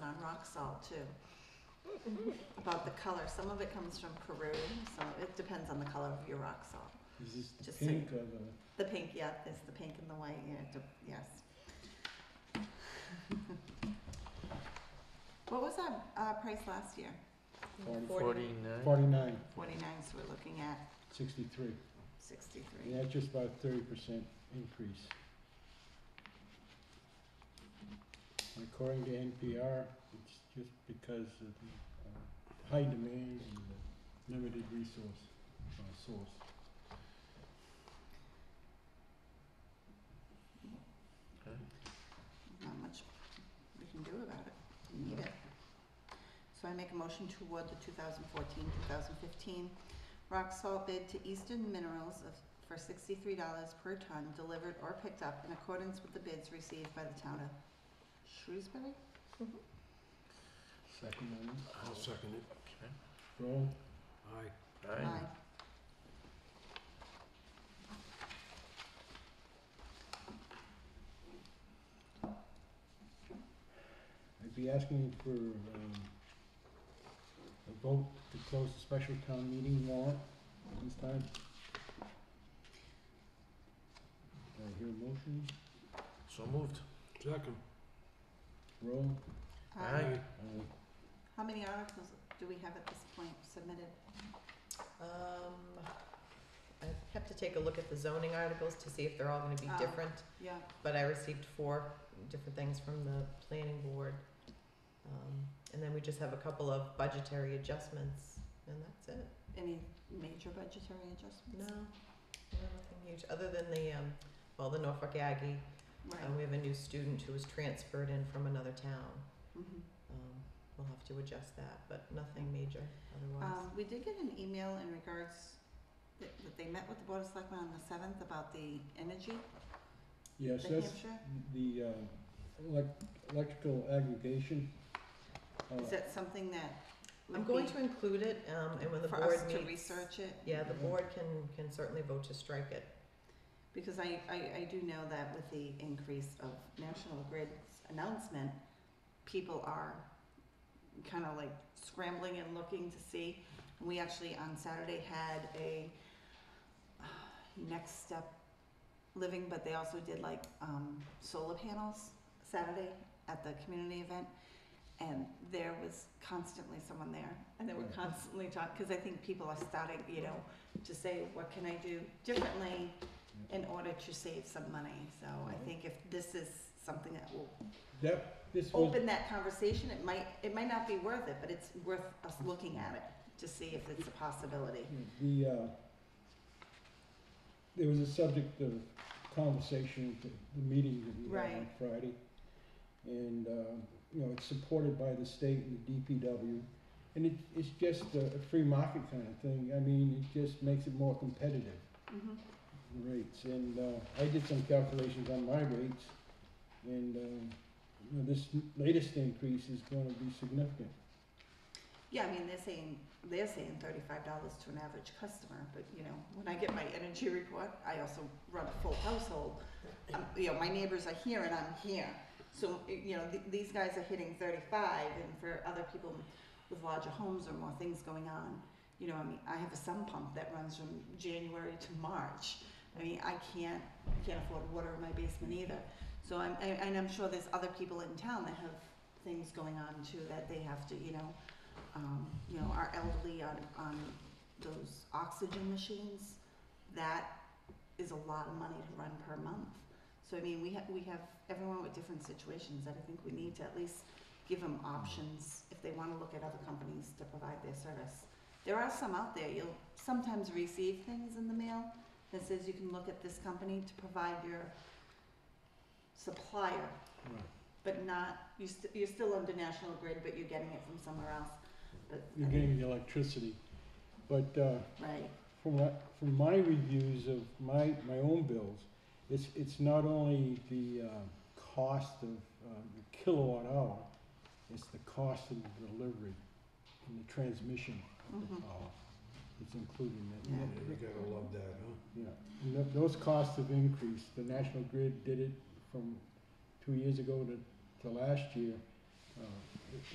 rock salt too. About the color, some of it comes from Peru, some of it depends on the color of your rock salt. Is this the Just so- pink or the, The pink, yeah, it's the pink and the white, yeah, it de- yes. What was our, uh, price last year? Forty. Forty-nine. uh, forty-nine, Forty-nine, so we're looking at sixty-three? sixty-three. And that's just about thirty percent increase. And According to NPR, it's just because of the uh, high demand and the limited resource, uh, source. Not much we can do about it, we need it. So I make a motion to award the 2014-2015 rock salt bid to Eastern Minerals of, for sixty-three dollars per ton delivered or picked up in accordance with the bids received by the town of Shrewsbury? Second on this, I'll second it. roll, Aye. Aye. I'd be asking for, um, a vote to close the special town meeting warrant at this time. Do I hear a motion? So moved. Second. Roll, Aye. Aye. uh, Um, How many articles do we have at this point submitted? Um, I have to take a look at the zoning articles to see if they're all gonna be Oh. different, Yeah, but I received four different things from the planning board. Um, and then we just have a couple of budgetary adjustments, and that's it. any major budgetary No, adjustments? no, nothing huge, other than the, um, well, the Norfolk Aggie, Right, uh, we have a new student who was transferred in from another town. mhm. Um, we'll have to adjust that, but nothing major otherwise. Um, we did get an email in regards that, that they met with the Board of Selectmen on the seventh about the energy, yes, the that's, Hampshire. The uh, elec- electrical aggregation. uh, Is that something that I'm would going be to include it, um, and when the for board us to meets. research it? Yeah, the Mhm. board can, can certainly vote to strike it. Because I, I, I do know that with the increase of National Grid's announcement, people are kind of like scrambling and looking to see. We actually on Saturday had a uh, next step living, but they also did like um, solar panels Saturday at the community event. And there was constantly someone there, and they were Right. constantly talking, because I think people are starting, you know, to say, what can I do differently? in order to save some money. So I Mhm. think if this is something that will That, this was, open that conversation, it might, it might not be worth it, but it's worth us looking at it to see if it's a possibility. the, uh, there was a subject of conversation at the the meeting that we had on Right. Friday. And, um, you know, it's supported by the state and the DPW. And it, it's just a a free market kind of thing. I mean, it just makes it more competitive. Mhm. rates, and uh, I did some calculations on my rates, and uh, you know, this latest increase is going to be significant. Yeah, I mean, they're saying, they're saying thirty-five dollars to an average customer, but you know, when I get my energy report, I also run a full household. Um, you know, my neighbors are here and I'm here, so, you know, th- these guys are hitting thirty-five, and for other people with larger homes or more things going on, you know, I mean, I have a sump pump that runs from January to March. I mean, I can't, I can't afford water in my basement either, so I'm, I- and I'm sure there's other people in town that have things going on too, that they have to, you know, um, you know, our elderly on, on those oxygen machines, that is a lot of money to run per month. So I mean, we have, we have everyone with different situations that I think we need to at least give them options if they wanna look at other companies to provide their service. There are some out there, you'll sometimes receive things in the mail that says you can look at this company to provide your supplier but not, you st- you're still under National Grid, but you're getting it from somewhere else, but. I You're mean, getting the electricity, but uh, Right, from what, from my reviews of my my own bills, it's it's not only the uh, cost of uh, the kilowatt hour, it's the cost of the delivery and the transmission of the Mhm. power. It's included in Yeah. that. Yeah, You gotta love that, huh? Yeah, and tho- those costs have increased. The National Grid did it from two years ago to, to last year. Uh,